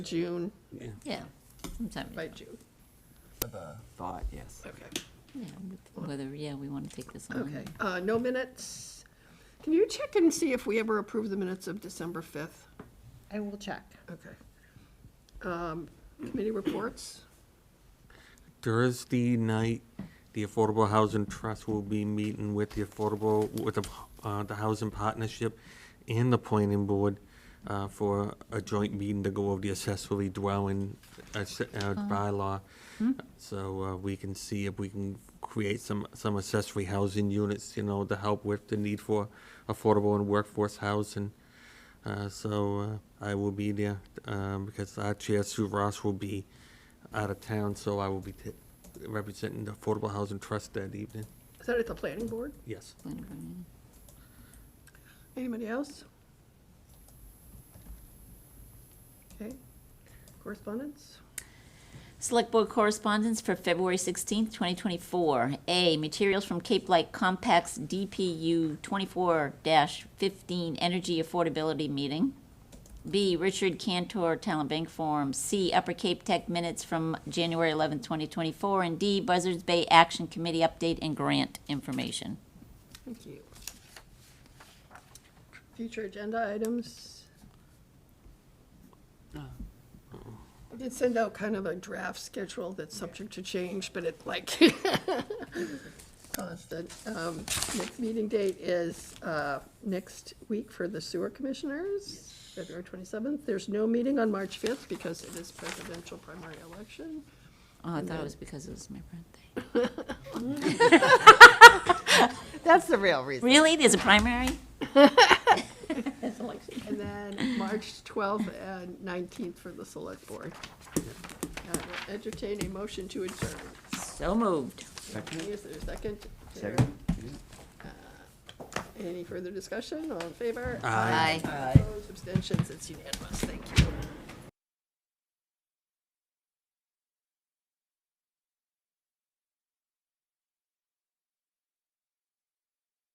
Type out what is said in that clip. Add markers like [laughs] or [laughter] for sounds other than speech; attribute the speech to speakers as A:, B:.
A: June,
B: Yeah, sometime, in
A: by
B: June.
A: June,
C: thought, yes.
A: okay,
B: yeah, with- whether, yeah, we want to take this on.
A: okay.
D: Mm-hmm.
A: Uh, no minutes. Can you check and see if we ever approved the minutes of December fifth?
D: I will check.
A: Okay. Um, committee reports?
E: Thursday night, the Affordable Housing Trust will be meeting with the Affordable, with the, uh, the Housing Partnership and the Planning Board, uh, for a joint meeting to go over the accessory dwelling, uh, s- uh, bylaw. So, uh, we can see if we can create some, some accessory housing units, you know, to help with the need for affordable and workforce housing. Uh, so uh, I will be there um, because our chair Sue Ross will be out of town, so I will be t- representing the Affordable Housing Trust that evening.
A: Is that at the planning board?
E: Yes.
B: Planning board meeting.
A: Anybody else? Okay, correspondence?
B: Select Board correspondence for February 16th, 2024. A, materials from Cape Light Compact's DPU 24-15 Energy Affordability Meeting. B, Richard Cantor Talent Bank Forum. C, Upper Cape Tech Minutes from January 11th, 2024. And D, Buzzards Bay Action Committee Update and Grant Information.
A: Thank you. Future agenda items? I did send out kind of a draft schedule that's subject to change, but it like, [laughs] constant. Um, Next meeting date is uh, next week for the sewer commissioners, February 27th. There's no meeting on March 5th because it is presidential primary election.
B: Oh, I thought it was because it was my birthday.
D: [laughs] That's the real reason.
B: Really? There's a primary?
A: And then March 12th and 19th for the select board. I will Entertain a motion to adjourn.
B: So moved.
C: Second?
A: Is there a second? Uh,
C: Second?
A: Any further discussion? All in favor?
E: Aye.
A: Opposed, abstentions, it's unanimous. Thank you.